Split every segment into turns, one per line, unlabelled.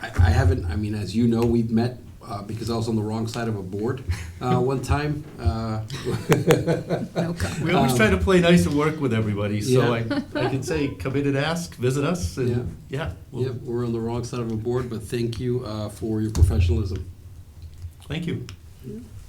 haven't, I mean, as you know, we've met, uh, because I was on the wrong side of a board, uh, one time. Uh,
No comment.
We always try to play nice and work with everybody, so I,
Yeah.
I can say, come in and ask, visit us, and, yeah. well,
Yep, we're on the wrong side of a board, but thank you, uh, for your professionalism.
Thank you.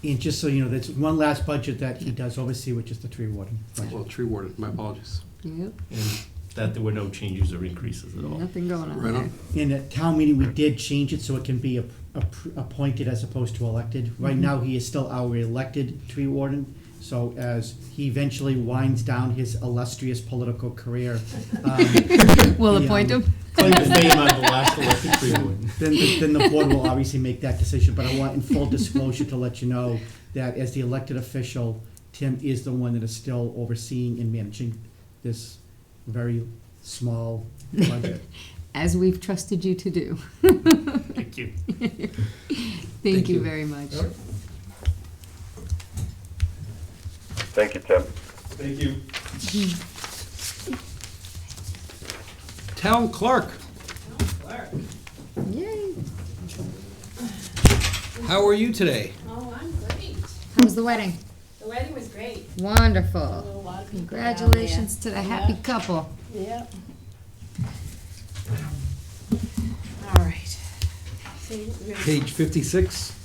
And just so you know, that's one last budget that he does oversee, which is the tree warden. budget.
Well, tree warden, my apologies.
Yep,
And that there were no changes or increases at all.
nothing going on
Right on.
there.
In at town meeting, we did change it so it can be ap- ap- appointed as opposed to elected. Right now, he is still our elected tree warden. So as he eventually winds down his illustrious political career, um,
We'll
Yeah.
appoint him.
Claim to fame on the last elected tree warden.
then, the- then the board will obviously make that decision. But I want in full disclosure to let you know that as the elected official, Tim is the one that is still overseeing and managing this very small budget.
As we've trusted you to do.
Thank you.
Thank
Thank
you
you.
very much.
Thank you, Tim.
Thank you.
Town clerk,
Yay.
how are you today?
Oh, I'm great.
How's the wedding?
The wedding was great. A
Wonderful.
lot of people down there.
Congratulations to the happy couple.
Yep. All right. So we're gonna
Page fifty-six?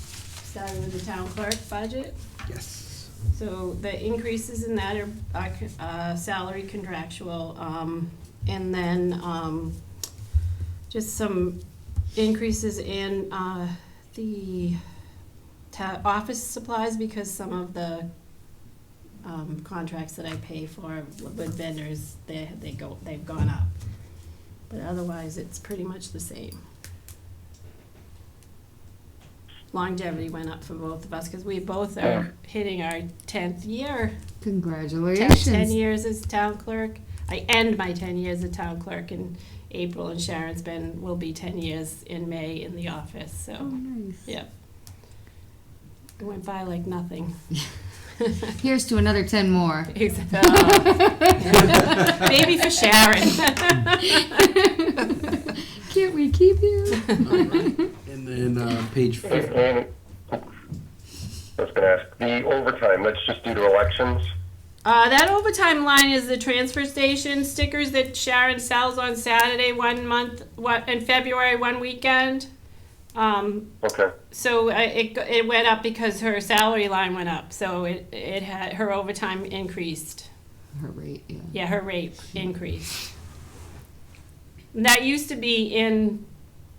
start with the town clerk budget.
Yes.
So the increases in that are, are con- uh, salary contractual, um, and then, um, just some increases in, uh, the ta- office supplies because some of the, um, contracts that I pay for with vendors, they, they go, they've gone up. But otherwise, it's pretty much the same. Longevity went up for both of us because we both are hitting our tenth year. Ten- Ten
Congratulations.
years as town clerk. I end my ten years as town clerk in April, and Sharon's been, will be ten years in May in the office,
Oh,
so,
nice.
yeah. It went by like nothing.
Here's to another ten more.
Except- oh. Maybe for Sharon.
Can't we keep you?
And then, uh, page fif-
And I was gonna ask, the overtime, that's just due to elections?
Uh, that overtime line is the transfer station stickers that Sharon sells on Saturday one month, one, in February, one weekend. Um,
Okay,
So uh, it, go- it went up because her salary line went up, so it, it had, her overtime increased.
Her rate, yeah.
Yeah, her rate increased. And That used to be in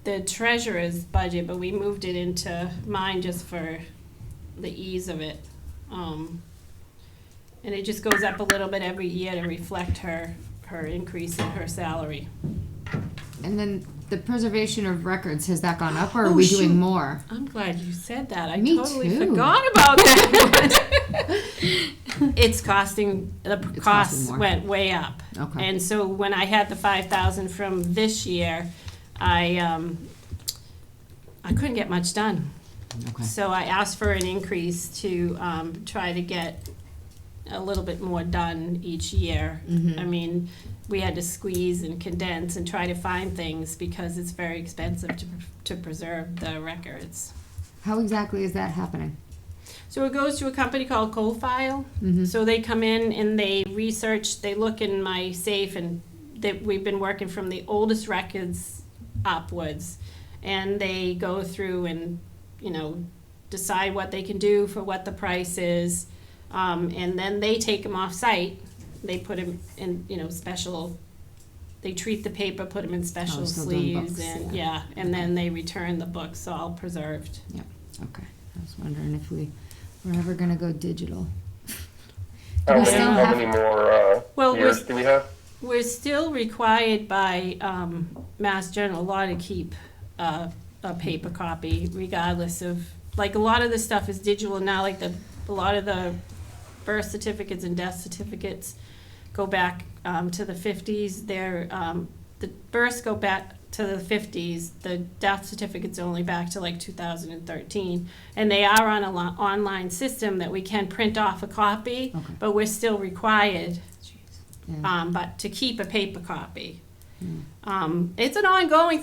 the treasurer's budget, but we moved it into mine just for the ease of it. Um, And it just goes up a little bit every year to reflect her, her increase in her salary.
And then the preservation of records, has that gone up or are
Oh,
we
shoot.
doing more?
I'm glad you said that. I
Me
totally
too.
forgot about that. one. it's costing the p-
It's costing
costs
more.
went way up,
Okay.
and so when I had the five thousand from this year, I um, I couldn't get much done.
Okay.
So I asked for an increase to um, try to get a little bit more done each year.
Mm-hmm.
I mean, we had to squeeze and condense and try to find things because it's very expensive to, to preserve the records.
How exactly is that happening?
So it goes to a company called Coalfile.
Mm-hmm.
So they come in and they research, they look in my safe and that we've been working from the oldest records upwards. And they go through and, you know, decide what they can do for what the price is. Um, and then they take them off site. They put them in, you know, special, they treat the paper, put them in special
Oh, so doing
sleeves
books,
and,
yeah.
yeah. And then they return the books all preserved.
Okay. I was wondering if we were ever going to go digital. Do
how
we
many,
still
how
have
many more, uh,
Well, we're
years
s-
do we have?
We're still required by um, Mass General Law to keep uh, a paper copy regardless of, like, a lot of this stuff is digital now, like the, a lot of the birth certificates and death certificates go back um, to the 50s. They're, um, the births go back to the 50s, the death certificates are only back to like 2013. And they are on a lo- online system that we can print off a copy,
Okay.
but we're still required
Yeah.
um, but to keep a paper copy.
Mm.
Um, it's an ongoing